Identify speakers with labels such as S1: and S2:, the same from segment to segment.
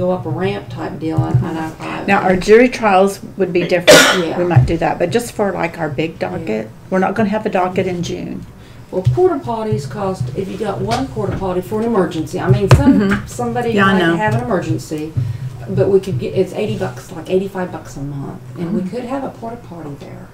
S1: go up a ramp type deal, and and I, I.
S2: Now, our jury trials would be different.
S1: Yeah.
S2: We might do that, but just for like our big docket, we're not gonna have a docket in June.
S1: Well, porta potties cost, if you got one porta potty for an emergency, I mean,
S3: Mm-hmm.
S1: some, somebody
S2: Yeah, I
S1: might
S2: know.
S1: have an emergency, but we could get, it's eighty bucks, like eighty-five bucks a month, and
S3: Mm-hmm.
S1: we could have a porta potty there.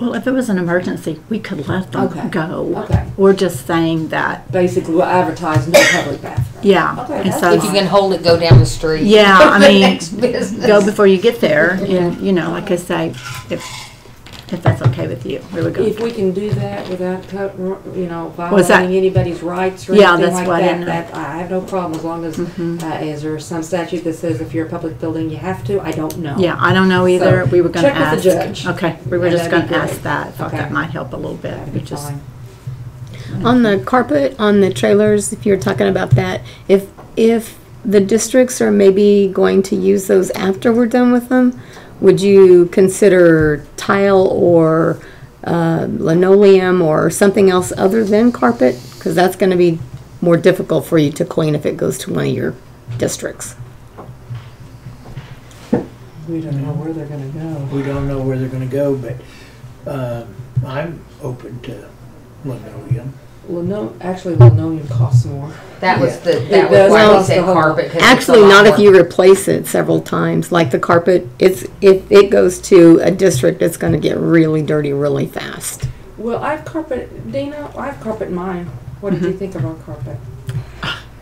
S3: Well, if it was an emergency, we could let
S1: Okay.
S3: them go.
S1: Okay.
S3: We're just saying that,
S1: Basically, we'll advertise no public bathroom.
S3: yeah.
S1: Okay,
S3: And
S1: that's
S3: so,
S4: If you can hold it, go down the street.
S3: Yeah, I
S4: The
S3: mean,
S4: next business.
S3: Go before you get there, and, you know, like I say, if, if that's okay with you, we would
S1: If
S3: go.
S1: we can do that without, cut- you know,
S3: Was that-
S1: violating anybody's rights or
S3: Yeah,
S1: anything
S3: that's
S1: like
S3: what I Mm-hmm.
S1: that, that,
S3: know.
S1: I have no problem, as long as, uh, is there some statute that says if you're a public building, you have to? I don't know.
S3: Yeah, I don't know either, we were gonna
S1: check with
S3: ask.
S1: the judge.
S3: Okay, we were
S1: Yeah,
S3: just
S1: that'd
S3: gonna
S1: be
S3: ask
S1: great.
S3: that, thought
S1: Okay.
S3: that might help a little bit,
S1: That'd be
S3: we just,
S1: fine.
S5: On the carpet, on the trailers, if you're talking about that, if, if the districts are maybe going to use those after we're done with them, would you consider tile or uh, linoleum or something else other than carpet? Because that's going to be more difficult for you to clean if it goes to one of your districts.
S6: We don't know where they're gonna go. We don't know where they're gonna go, but um, I'm open to linoleum.
S1: Lino, actually, linoleum costs more.
S4: That was the,
S1: It
S4: that
S1: does
S4: was why we
S1: cost a
S4: said
S1: whole-
S4: carpet. 'cause it's a
S5: Actually,
S4: lot
S5: not if
S4: more.
S5: you replace it several times, like the carpet, it's, if it goes to a district, it's going to get really dirty really fast.
S1: Well, I've carpet, Dana, I've carpet mine. What did you think of our carpet?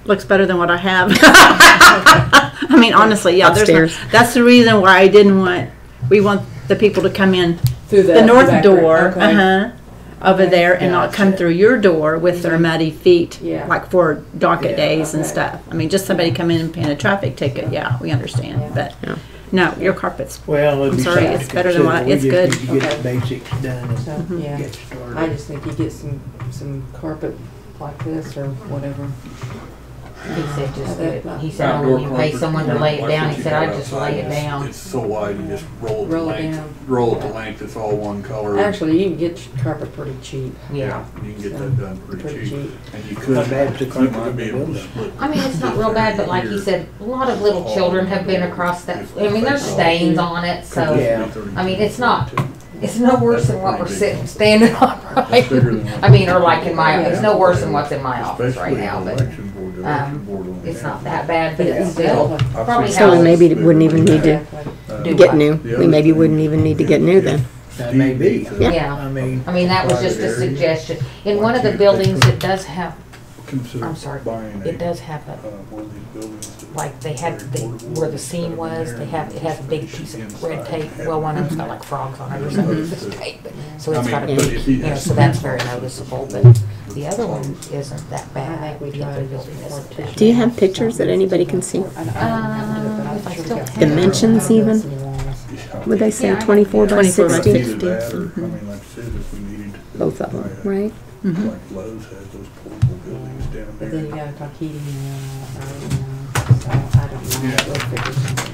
S3: looks better than what I have. I mean, honestly, yeah, there's,
S5: Upstairs.
S3: no- that's the reason why I didn't want, we want the people to come in
S1: Through
S3: the north
S1: back
S3: door,
S1: room, okay.
S3: uh-huh, over there and not
S1: Gotcha.
S3: come
S1: Mm-hmm.
S3: through your door with their muddy feet,
S1: Yeah.
S3: like for docket
S6: Yeah,
S3: days and
S1: okay.
S3: stuff. I mean, just somebody come in and paying a traffic ticket, yeah, we
S1: Yeah.
S3: understand, but,
S5: Yeah.
S3: no, your carpet's,
S6: Well, it'd
S3: I'm
S6: be
S3: sorry,
S6: something
S3: it's
S6: to
S3: better than what I-
S6: consider. We
S3: it's
S6: just
S1: good.
S6: need to Get the basics done
S1: So,
S6: and
S1: yeah,
S6: get
S1: I
S6: started.
S1: just think you get some, some carpet like this or whatever.
S4: He said just,
S1: That-
S4: that- he said, oh,
S7: Outdoor
S4: when you pay
S7: carpet,
S4: someone to
S7: yeah,
S4: lay it
S7: like
S4: down,
S7: what
S4: he
S7: you
S4: said,
S7: got
S4: I just
S7: outside,
S4: lay it
S7: it's-
S4: down.
S7: It's so wide, you just roll it to
S1: Roll it down.
S7: length, roll it to length, it's all one color.
S1: Actually, you can get carpet pretty cheap.
S4: Yeah.
S7: You can get that done
S1: Pretty
S7: pretty cheap.
S1: cheap.
S7: And you could,
S6: Not bad to
S7: you
S6: carpet
S7: might be
S6: the
S7: able to
S6: building.
S7: split.
S4: I mean, it's not real bad, but like he said, a lot of little children have been across that. I mean, there's stains on it, so
S6: Yeah.
S4: I mean, it's not- it's no worse than what we're sitting, standing on,
S7: It's bigger
S4: right?
S7: than what-
S4: I mean, or like in my,
S1: Yeah.
S4: it's no worse than what's in my office
S7: Especially
S4: right
S7: an
S4: now, but
S7: election board, the
S4: um,
S7: election board only
S4: it's
S7: has-
S4: not that bad, but it's
S1: Yeah.
S4: still.
S7: I
S4: probably
S7: think
S4: So
S7: it's
S5: maybe it wouldn't
S7: bigger
S5: even
S7: than
S5: need to-
S1: Exactly.
S7: that.
S4: do
S5: get
S4: what?
S5: new.
S7: The
S5: We
S7: other
S5: maybe
S7: thing,
S5: wouldn't even need to
S7: if-
S5: get new
S7: if
S5: then.
S6: That may be.
S7: Steve-
S4: Yeah.
S6: I mean,
S4: I mean, that was
S7: Private
S4: just a
S7: area.
S4: suggestion. In
S7: Why
S4: one of the
S7: can't they
S4: buildings,
S7: put-
S4: it does have,
S7: consider
S4: I'm sorry,
S7: buying a,
S4: it does have
S7: uh,
S4: a,
S7: one of these buildings that-
S4: like, they had, the where the seam was, they have, it has a big piece of red tape. Well, one of them's got like frogs on it or something, it's just tape, but, so
S7: I
S4: it's
S7: mean,
S4: got a
S7: but
S4: big,
S7: if he
S4: you know,
S7: has-
S4: so that's very noticeable, but the other one isn't that
S1: I
S4: bad.
S1: think we
S4: The
S1: got
S4: other
S1: it.
S4: building isn't that bad.
S5: Do you have pictures that anybody can see?
S1: I don't- I don't have to do it, but I'm
S4: Um, if I
S1: sure
S4: still
S1: we got-
S4: have
S5: Dimensions even?
S7: Yeah.
S5: Would they say
S4: Yeah, I-
S5: 24 by
S3: 24 by
S5: 60?
S7: Either that or, I mean, like I said, if we needed to
S5: Both of them,
S7: buy a-
S5: right?
S3: Mm-hmm.
S7: Like Lowe's has those portable buildings down
S1: But then you
S7: there.
S1: gotta talk heating and, uh, all that, so I don't know,
S7: Yeah.
S1: we'll figure something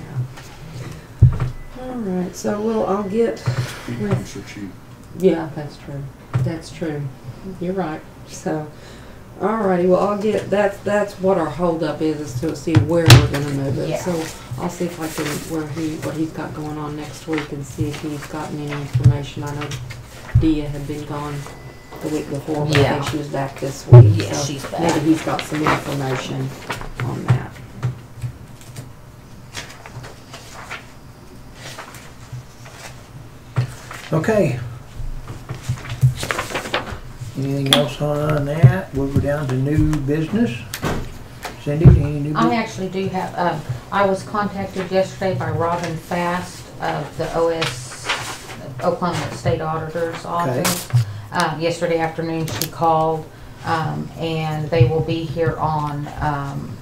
S1: out. All right, so we'll, I'll get,
S7: Heat pumps are cheap.
S1: yeah, that's true, that's true, you're right, so, all righty, well, I'll get, that's, that's what our holdup is, is to see where we're gonna move it.
S4: Yeah.
S1: So I'll see if I can, where he, what he's got going on next week and see if he's gotten any information, I know Dia had been gone the week before, but I
S4: Yeah.
S1: think she was back this week,
S4: Yeah,
S1: so
S4: she's
S1: Maybe
S4: back.
S1: he's got some information on that.
S6: Okay. Anything else on that? We'll go down to new business. Cindy, any new
S4: I
S6: business?
S4: actually do have, um, I was contacted yesterday by Robin Fast of the OS, Oklahoma State Auditor's Office. Um, yesterday afternoon, she called, um, and they will be here on, um,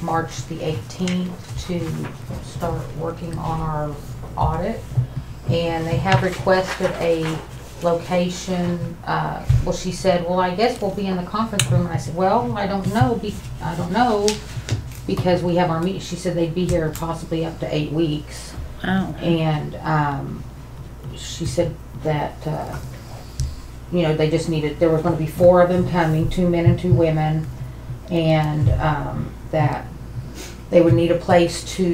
S4: March the eighteenth to start working on our audit. And they have requested a location, uh, well, she said, well, I guess we'll be in the conference room. And I said, well, I don't know, be, I don't know, because we have our meet, she said they'd be here possibly up to eight weeks.
S3: wow.
S4: And, um, she said that, uh, you know, they just needed, there were gonna be four of them coming, two men and two women. And, um, that they would need a place to